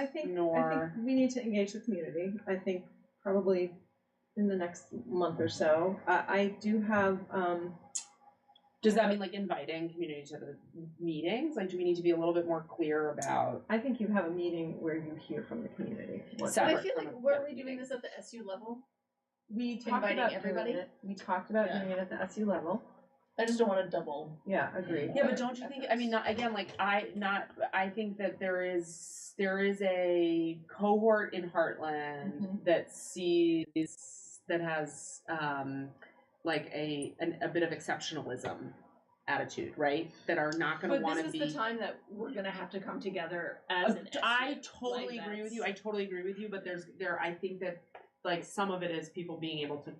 I think, I nor- think we need to engage the community. I think probably in the next month or so. I, I do have, um, Does that mean like inviting community to the meetings? Like, do we need to be a little bit more clear about? I think you have a meeting where you hear from the community. what- So- I separate feel from like, a- were yeah, we doing meeting. this at the SU level? We talked Inviting about everybody? doing it. We talked about Yeah. doing it at the SU level. I just don't wanna double. Yeah, agreed. Yeah, but don't you think? I mean, not again. Like, I not. I think that there is there is a cohort in Heartland Mhm. that sees that has um, like a an, a bit of exceptionalism attitude, right? That are not going to But want this to is be. the time that we're gonna have to come together Uh, as an I SU. totally like agree with that's- you. I totally agree with you. But there's there. I think that like some of it is people being able to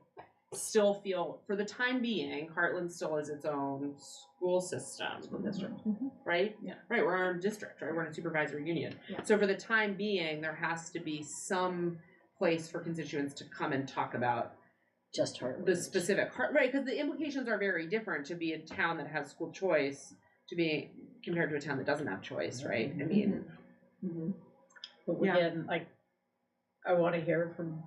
still feel for the time being, Heartland still is its own school system, School district. right? Yeah. Right. We're our own district, right? We're in a supervisory union. Yeah. So for the time being, there has to be some place for constituents to come and talk about just her. the specific heart right because the implications are very different to be a town that has school choice to be compared to a town that doesn't have choice right Mm-hmm. i mean Mm-hmm. Mhm. But we yeah. didn't, like, I want to hear from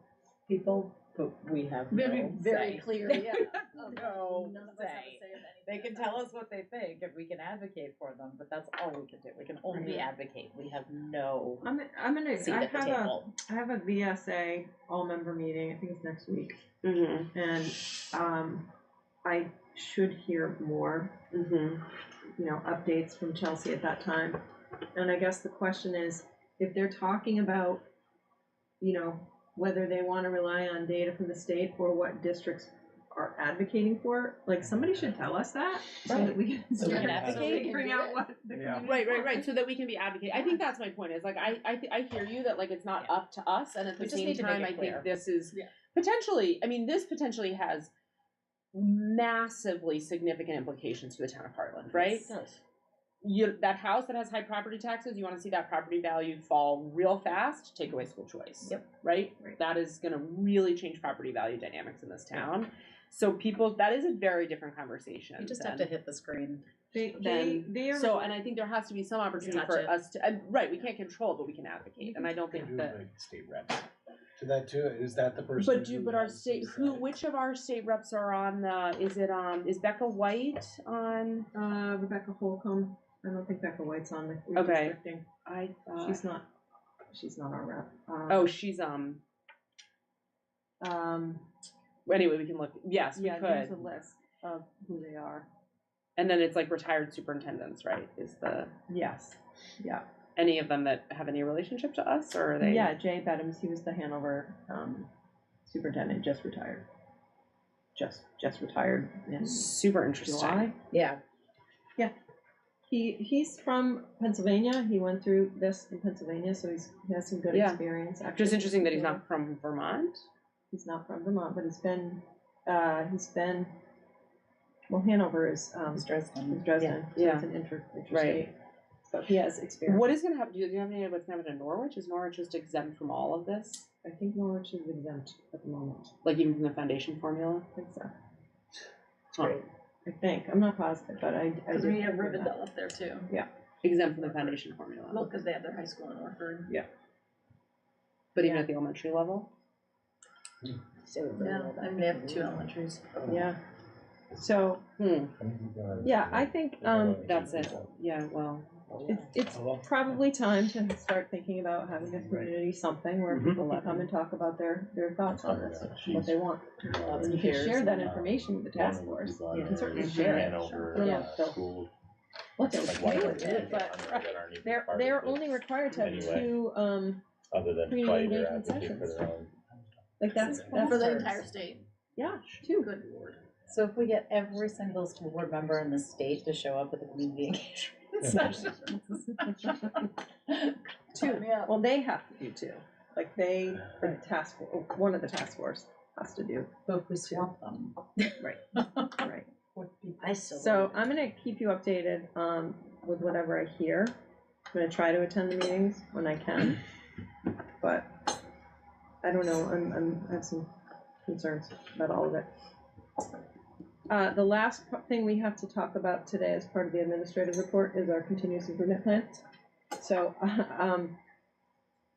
people, but we have Very- no very say. clear, yeah. None No of us have a say. say of anything They can about tell it. us what they think and we can advocate for them, but that's all we can do. We can only Yeah. advocate. We have no I'm, I'm gonna, seat I at the have a, table. I have a VSA all-member meeting, I think it's next week. mm-hmm. And, um, I should hear more Mm-hmm. you know, updates from Chelsea at that time. And I guess the question is, if they're talking about, you know, whether they want to rely on data from the state or what districts are advocating for, like, somebody should tell us that, so that we can So we start can advocating, advocate. figuring out what the Yeah. community right right wants. right so that we can be advocating i think that's my point is like i i, th- I hear you that like it's not Yeah. up to us and at the We just same need to make time it i think clear. this is Yeah. potentially i mean this potentially has massively significant implications for the town of heartland right you that house that has high property taxes, you want to see that property value fall real fast, take away school choice. Yep. Right? Right. That is going to really change property value dynamics in this town. So people that is a very different conversation. You just than- have to hit the screen. They, they, Then- they are. So and I think there has to be some opportunity Touch for it. us to and, right, we can't control but we can advocate. And I don't Could think do that like state reps to that too. Is that the person? but do but our state who which of our state reps are on the is it um is Becca White on Uh, Rebecca Holcomb, I don't think Becca White's on the Okay. redistricting. I thought She's not, she's not our rep. Um, Oh she's um Um, anyway we can look yes we yeah, could there's a list of who they are. And then it's like retired superintendents, right? Is the Yes, yeah. any of them that have any relationship to us, or are they? Yeah, Jay Bedams, he was the Hanover um, superintendent, just retired. Just just retired in super interesting. July. Yeah. He he's from Pennsylvania. He went through this in Pennsylvania, so he's, he has some good Yeah. experience. Actually. Just interesting that he's Yeah. not from Vermont. He's not from Vermont, but he's been uh, he's been well. Hanover is um, It's is Dresden. Dresden, so Yeah. it's an inter- Right. interstate. So he has experience. What is going to happen? Do you do you have any idea what's going to happen to Norwich? Is Norwich just exempt from all of this, I think Norwich is exempt at the moment. like even from the foundation formula? I think so. Huh. Right. uh, I think I'm not positive, but I I Cause did we have hear that. Rivendell up there too. Exempt from the foundation formula, Well, cause they have their high school in Orford. but even at the elementary level. Yeah, I mean, they have two elementaries. Oh, Yeah. So, Hmm. yeah, I think, um, That's it. Yeah. Well. Oh, it's, it's probably time to start thinking about having a community something where Mhm. people can come and talk about their, their thoughts on Oh, this, what they want. Lots You of can peers. share that information with the task force. You uh, can certainly share it. I don't know if they'll- What they'll do with it, but they're, they're only required to have Anyway. two, um, Other than community fight or engagement advocate for sessions. their own. like that's, And for that's, the Bastards. entire state. yeah, two. Good lord. So if we get every single school board member in the state to show up at the community engagement session. Two, yeah. Well, they have to do two. Like they, the task, for- oh, one of the task force has to do, But if we swap them. right? I So I'm gonna keep you updated um, with whatever I hear. I'm gonna try to attend the meetings when I can, but I don't know. I'm, I'm I have some concerns about all of it. Uh, the last p- thing we have to talk about today as part of the administrative report is our continuous improvement plan. So, um,